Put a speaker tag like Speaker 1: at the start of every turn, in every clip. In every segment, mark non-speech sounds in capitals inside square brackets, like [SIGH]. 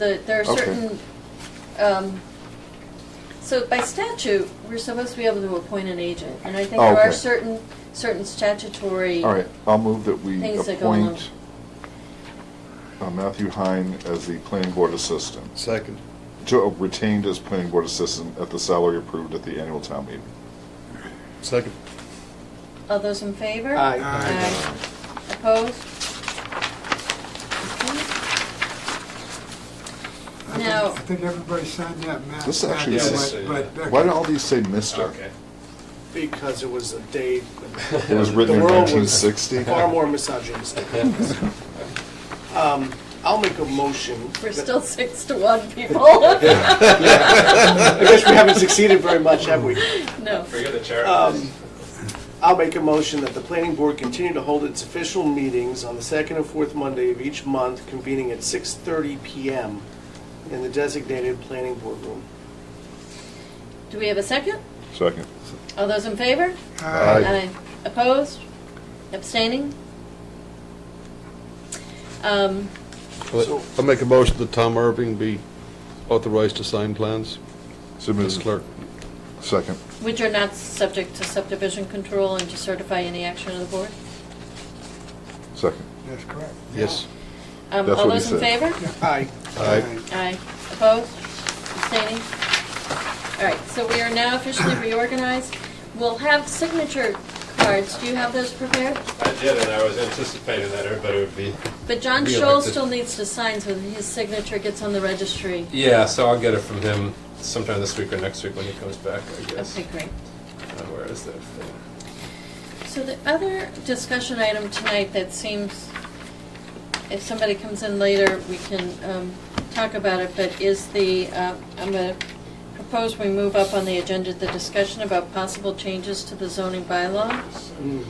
Speaker 1: The, there are
Speaker 2: Okay.
Speaker 1: certain, um, so by statute, we're supposed to be able to appoint an agent, and I think
Speaker 2: Oh,
Speaker 1: there are
Speaker 2: okay.
Speaker 1: certain, certain statutory.
Speaker 2: All right, I'll move that we
Speaker 1: Things that go along.
Speaker 2: appoint uh, Matthew Hine as the planning board assistant,
Speaker 3: Second.
Speaker 2: to- uh, retained as planning board assistant at the salary approved at the annual town meeting.
Speaker 3: Second.
Speaker 1: All those in favor?
Speaker 4: Aye.
Speaker 1: Aye.
Speaker 4: Aye.
Speaker 1: Opposed?
Speaker 5: I think-
Speaker 1: Now-
Speaker 5: I think everybody signed that map.
Speaker 2: This actually
Speaker 3: Yeah,
Speaker 2: says,
Speaker 3: but-
Speaker 2: why do all these say mister?
Speaker 3: Okay.
Speaker 4: Because it was a day.
Speaker 2: It was written in
Speaker 4: The world was
Speaker 2: 1960.
Speaker 4: Far more misogynistic. Um, I'll make a motion.
Speaker 1: We're
Speaker 4: that-
Speaker 1: still six to one, people.
Speaker 4: I guess we haven't succeeded very much, have we?
Speaker 1: No.
Speaker 6: Forget the chair.
Speaker 4: Um, I'll make a motion that the planning board continue to hold its official meetings on the second and fourth Monday of each month, convening at 6:30 PM in the designated planning board room.
Speaker 1: Do we have a second?
Speaker 2: Second.
Speaker 1: All those in favor?
Speaker 2: Aye.
Speaker 1: Opposed? Abstaining? Um,
Speaker 4: So-
Speaker 3: I make a motion that Tom Irving be authorized to sign plans
Speaker 2: So
Speaker 3: as
Speaker 2: moved.
Speaker 3: clerk.
Speaker 2: Second.
Speaker 1: which are not subject to subdivision control and to certify any action of the board?
Speaker 2: Second.
Speaker 5: That's correct.
Speaker 3: Yes.
Speaker 1: Um,
Speaker 2: That's
Speaker 1: all
Speaker 2: what he
Speaker 1: those in
Speaker 2: said.
Speaker 1: favor?
Speaker 4: Aye.
Speaker 3: Aye.
Speaker 1: Aye. Opposed? Abstaining? All right, so we are now officially reorganized. We'll have signature cards. Do you have those prepared?
Speaker 6: I did, and I was anticipating that everybody would be.
Speaker 1: But John
Speaker 6: Be
Speaker 1: Scholl
Speaker 6: elected.
Speaker 1: still needs to sign so that his signature gets on the registry.
Speaker 6: Yeah, so I'll get it from him sometime this week or next week when he comes back, I guess.
Speaker 1: Okay, great.
Speaker 6: Uh, where is that thing?
Speaker 1: So the other discussion item tonight that seems, if somebody comes in later, we can um, talk about it, but is the, uh, I'm going to propose we move up on the agenda the discussion about possible changes to the zoning bylaw,
Speaker 4: Mm.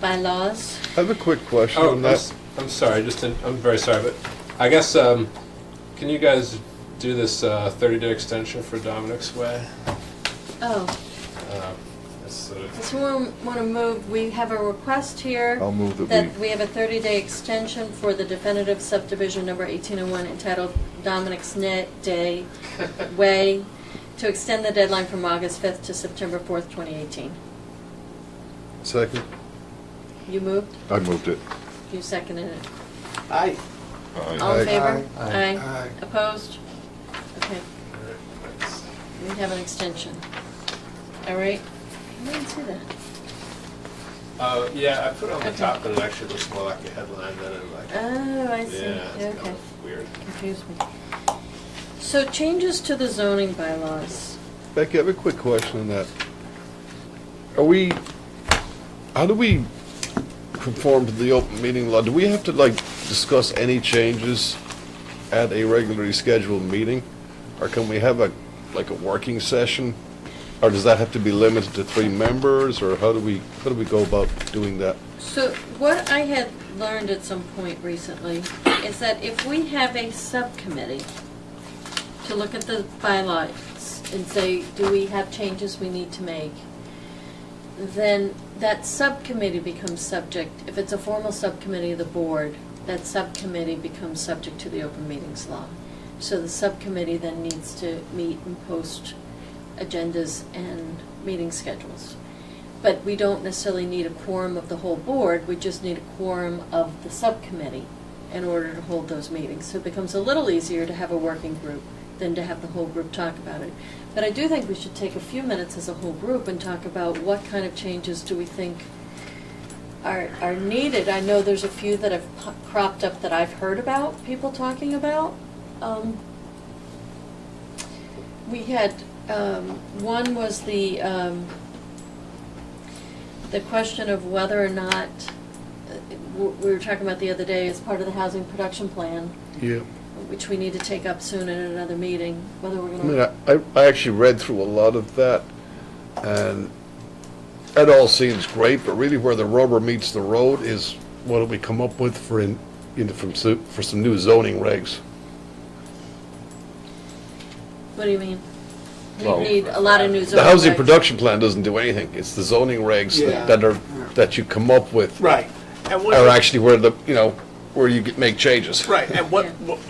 Speaker 1: bylaws.
Speaker 3: I have a quick question
Speaker 6: Oh,
Speaker 3: on
Speaker 6: I'm,
Speaker 3: that.
Speaker 6: s- I'm sorry. Just in, I'm very sorry, but I guess um, can you guys do this uh, 30-day extension for Dominic's Way?
Speaker 1: Oh,
Speaker 6: Uh, that's sort of,
Speaker 1: so we want to move, we have a request here.
Speaker 2: I'll move that
Speaker 1: That
Speaker 2: we-
Speaker 1: we have a 30-day extension for the definitive subdivision number 1801 entitled Dominic's Net
Speaker 6: [LAUGHS]
Speaker 1: Day Way to extend the deadline from August 5th to September 4th, 2018.
Speaker 3: Second.
Speaker 1: You moved?
Speaker 2: I moved it.
Speaker 1: You seconded it?
Speaker 4: Aye.
Speaker 1: All in
Speaker 3: Aye.
Speaker 1: favor?
Speaker 5: Aye. Aye.
Speaker 1: Opposed? Okay,
Speaker 6: that's-
Speaker 1: we have an extension. All right? I didn't see that.
Speaker 6: Uh, yeah, I put it on the
Speaker 1: Okay.
Speaker 6: top, and it actually looks more like a headline than it like.
Speaker 1: Oh, I see.
Speaker 6: Yeah, it's kind
Speaker 1: Okay.
Speaker 6: of weird.
Speaker 1: Confused me. So changes to the zoning bylaws.
Speaker 3: Becky, I have a quick question on that. Are we, how do we conform to the open meeting law? Do we have to, like, discuss any changes at a regularly scheduled meeting? Or can we have a, like, a working session? Or does that have to be limited to three members, or how do we, how do we go about doing that?
Speaker 1: So what I had learned at some point recently is that if we have a subcommittee to look at the bylaws and say, do we have changes we need to make? Then that subcommittee becomes subject, if it's a formal subcommittee of the board, that subcommittee becomes subject to the open meetings law. So the subcommittee then needs to meet and post agendas and meeting schedules. But we don't necessarily need a quorum of the whole board, we just need a quorum of the subcommittee in order to hold those meetings. So it becomes a little easier to have a working group than to have the whole group talk about it. But I do think we should take a few minutes as a whole group and talk about what kind of changes do we think are, are needed. I know there's a few that have po- cropped up that I've heard about, people talking about. Um, We had, um, one was the, um, the question of whether or not, uh, w- we were talking about the other day as part of the housing production plan,
Speaker 3: Yeah.
Speaker 1: which we need to take up soon in another meeting, whether we're
Speaker 3: I mean,
Speaker 1: gonna.
Speaker 3: I, I- I actually read through a lot of that, and it all seems great, but really where the rubber meets the road is what do we come up with for in, you know, from, so- for some new zoning regs?
Speaker 1: What do you mean? We
Speaker 2: Well,
Speaker 1: need a lot of new zoning.
Speaker 3: The housing
Speaker 1: regs.
Speaker 3: production plan doesn't do anything, it's the zoning regs that-
Speaker 4: Yeah.
Speaker 3: that are, that you come up with
Speaker 4: Right. And what-
Speaker 2: Oh,
Speaker 3: are actually where the, you know, where you get- make changes.
Speaker 4: Right, and what,
Speaker 1: Yeah.
Speaker 4: what-